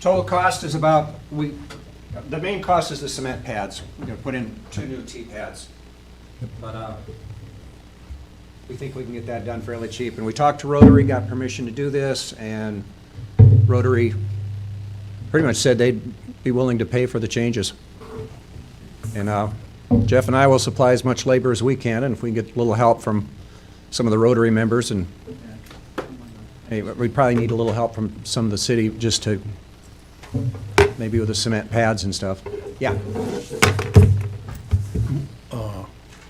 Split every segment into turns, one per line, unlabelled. Total cost is about, we, the main cost is the cement pads. We're gonna put in two new T-pads. But, uh, we think we can get that done fairly cheap. And we talked to Rotary, got permission to do this, and Rotary pretty much said they'd be willing to pay for the changes. And uh, Jeff and I will supply as much labor as we can, and if we can get a little help from some of the Rotary members, and, hey, we probably need a little help from some of the city, just to, maybe with the cement pads and stuff. Yeah,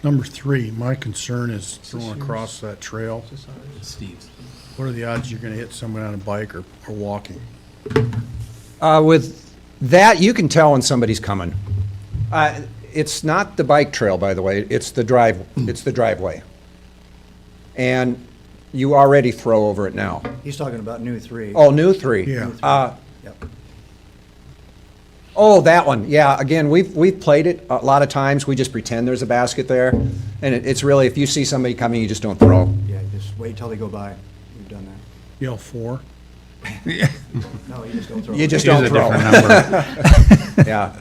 Number three, my concern is going across that trail.
Steve's.
What are the odds you're gonna hit someone on a bike or, or walking?
Uh, with that, you can tell when somebody's coming. Uh, It's not the bike trail, by the way, it's the drive, it's the driveway. And you already throw over it now.
He's talking about new three.
Oh, new three?
Yeah.
Uh,
Yep.
Oh, that one, yeah, again, we've, we've played it a lot of times, we just pretend there's a basket there, and it- it's really, if you see somebody coming, you just don't throw.
Yeah, just wait till they go by. We've done that.
You know, four?
No, you just don't throw.
You
it.
just don't throw. Yeah.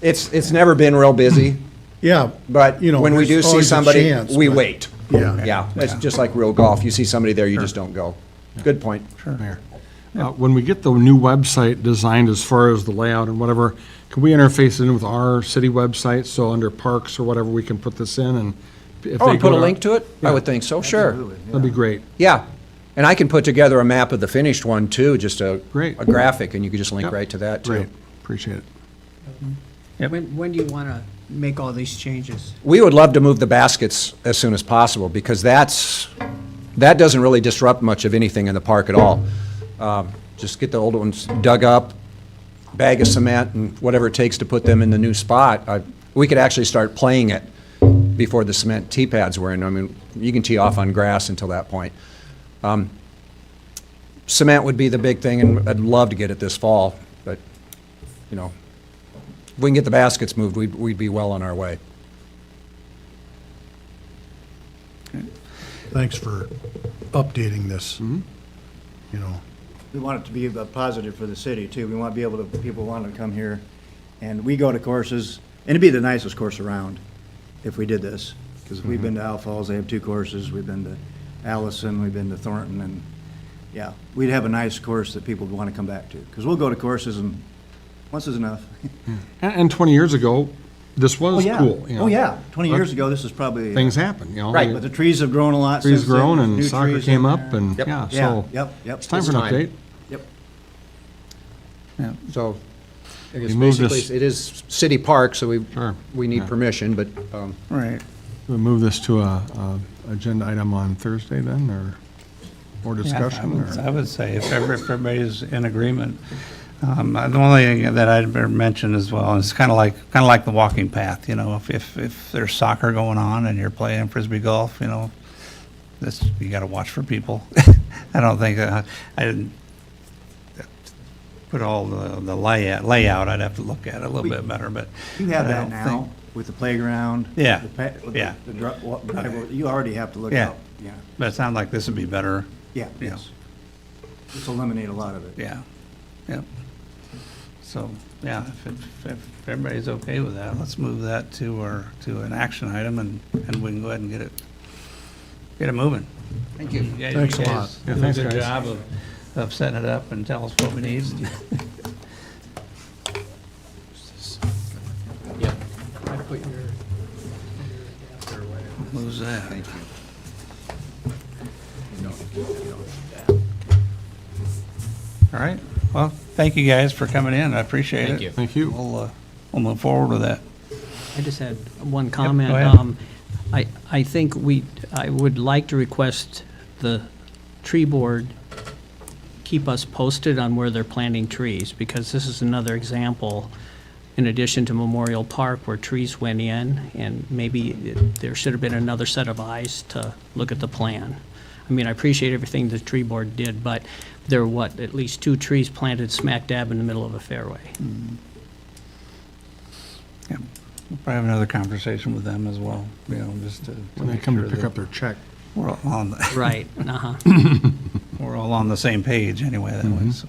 It's, it's never been real busy,
Yeah.
but
you know,
when we
there's
do see
always a
somebody,
chance,
we
but-
wait.
Yeah.
Yeah, it's just like real golf, you see somebody there, you just don't go. Good point.
Mayor. Uh, When we get the new website designed as far as the layout and whatever, can we interface it in with our city website? So under parks or whatever, we can put this in and if
Oh,
they
and put
go
a
to-
link to it? I would think so, sure.
Absolutely,
That'd be great.
Yeah, and I can put together a map of the finished one too, just a.
Great.
A graphic, and you could just link
Yep.
right to that too.
Great, appreciate it.
When, when do you want to make all these changes?
We would love to move the baskets as soon as possible, because that's, that doesn't really disrupt much of anything in the park at all. Um, Just get the old ones dug up, bag of cement, and whatever it takes to put them in the new spot. I- We could actually start playing it before the cement tee pads were in. I mean, you can tee off on grass until that point. Um, Cement would be the big thing, and I'd love to get it this fall, but, you know, if we can get the baskets moved, we'd, we'd be well on our way.
Thanks for updating this.
Mm-hmm.
You know,
We want it to be a positive for the city too. We want to be able to, people want to come here. And we go to courses, and it'd be the nicest course around if we did this. Because we've been to
Mm-hmm.
Owl Falls, they have two courses. We've been to Allison, we've been to Thornton and, yeah. We'd have a nice course that people would want to come back to. Because we'll go to courses and once is enough.
And, and twenty years ago, this
Oh,
was
yeah.
cool. you know.
Oh, yeah. Twenty years
But
ago, this is probably.
Things happen, you know.
Right,
But the trees have grown a lot since
Trees
then.
grown and
New
soccer
trees
came
in
up
there.
and,
Yep.
yeah,
Yeah,
so.
yep, yep.
It's time for an
It's time.
update.
Yep.
So, I guess
You moved
basically,
us-
it is city park, so we,
Sure,
we need
yeah.
permission, but, um,
Right.
We move this to a, a agenda item on Thursday then, or, or
Yeah, I
discussion,
would- I
or?
would say if ever- if everybody's in agreement. Um, uh, The only thing that I'd ever mention as well, is kind of like, kind of like the walking path, you know, if, if, if there's soccer going on and you're playing frisbee golf, you know, this, you got to watch for people. I don't think, uh, I didn't put all the the layout, layout, I'd have to look at it a little bit better, but.
You have
but I
that
don't think-
now with the playground.
Yeah,
the pa- with the-
yeah.
the dri- wa- driveway. You already have to look
Yeah.
out. Yeah,
But it sounds like this would be better,
yeah,
Yeah.
yes. Just eliminate a lot of it.
Yeah, yeah. So, yeah, if, it- if everybody's okay with that, let's move that to our, to an action item and, and we can go ahead and get it, get it moving. Thank you. guys- you
Thanks a lot.
guys
Yeah,
Do a
thanks,
good
guys.
job of, of setting it up and tell us what we need. Who's that? All right, well, thank you guys for coming in, I appreciate it.
Thank you.
Thank you.
We'll, uh, we'll move forward with that.
I just had one comment.
ahead.
Um, I, I think we, I would like to request the tree board keep us posted on where they're planting trees, because this is another example, in addition to Memorial Park, where trees went in, and maybe it- there should have been another set of eyes to look at the plan. I mean, I appreciate everything the tree board did, but there were, what, at least two trees planted smack dab in the middle of a fairway.
Yeah, We'll probably have another conversation with them as well, you know, just to.
When they
make
come to
sure
pick
that
up their check.
We're all on, the-
Right, uh-huh.
Mm-hmm.
we're all on the same page anyway, that way, so.